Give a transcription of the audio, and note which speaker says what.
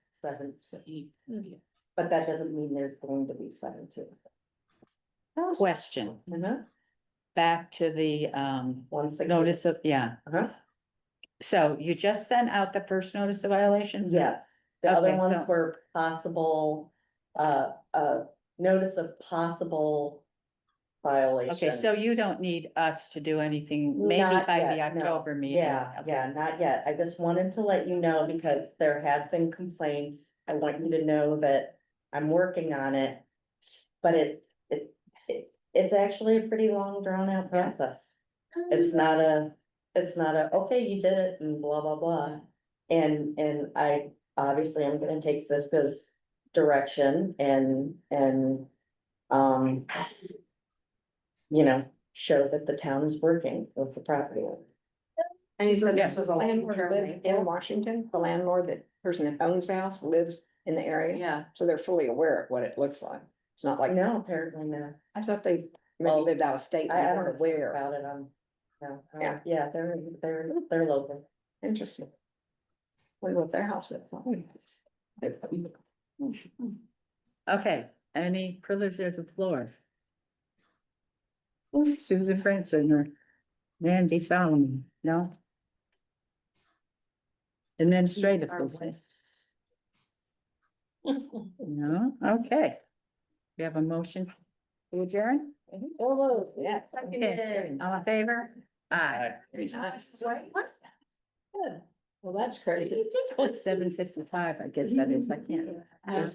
Speaker 1: seventeen.
Speaker 2: Oh,
Speaker 1: But that doesn't mean there's going to be seventeen.
Speaker 2: Question,
Speaker 1: Mhm.
Speaker 2: back to the um
Speaker 1: One six.
Speaker 2: notice of, yeah.
Speaker 1: Uh-huh.
Speaker 2: So you just sent out the first notice of violation?
Speaker 1: Yes, the other
Speaker 2: Okay,
Speaker 1: ones
Speaker 2: so-
Speaker 1: were possible, uh, uh, notice of possible violation.
Speaker 2: Okay, so you don't need us to do anything, maybe
Speaker 1: Not
Speaker 2: by the
Speaker 1: yet, no.
Speaker 2: October meeting.
Speaker 1: Yeah,
Speaker 2: Okay.
Speaker 1: yeah, not yet. I just wanted to let you know because there have been complaints. I want you to know that I'm working on it. But it, it, it, it's actually a pretty long drawn out process.
Speaker 3: Um,
Speaker 1: It's not a, it's not a, okay, you did it and blah, blah, blah. And, and I, obviously, I'm gonna take Siska's direction and, and, um. You know, show that the town is working with the property. owner.
Speaker 3: And you said this
Speaker 2: Yeah.
Speaker 3: was a long
Speaker 4: landlord
Speaker 3: term.
Speaker 4: lived in Washington, the landlord, the person that owns the house lives in the area,
Speaker 3: Yeah,
Speaker 4: so they're fully aware of what it looks like. It's not like,
Speaker 1: No, apparently not.
Speaker 4: I thought they maybe
Speaker 1: Well,
Speaker 4: lived out of state, and
Speaker 1: I, I
Speaker 4: they
Speaker 1: don't know
Speaker 4: weren't aware.
Speaker 1: about it on. No, I don't-
Speaker 4: Yeah.
Speaker 1: yeah, they're, they're, they're local.
Speaker 4: Interesting. Wonder what their house is.
Speaker 2: Okay, any privilege of the floor? Ooh, Susan Franson or Mandy Solomon, no? Administrative
Speaker 3: Our
Speaker 2: business, no, okay. We have a motion, to adjourn?
Speaker 4: Yes.
Speaker 2: Okay, All in favor? Aye.
Speaker 4: Nice.
Speaker 3: Well, that's
Speaker 2: Seven fifty-five, I guess that is, I can't.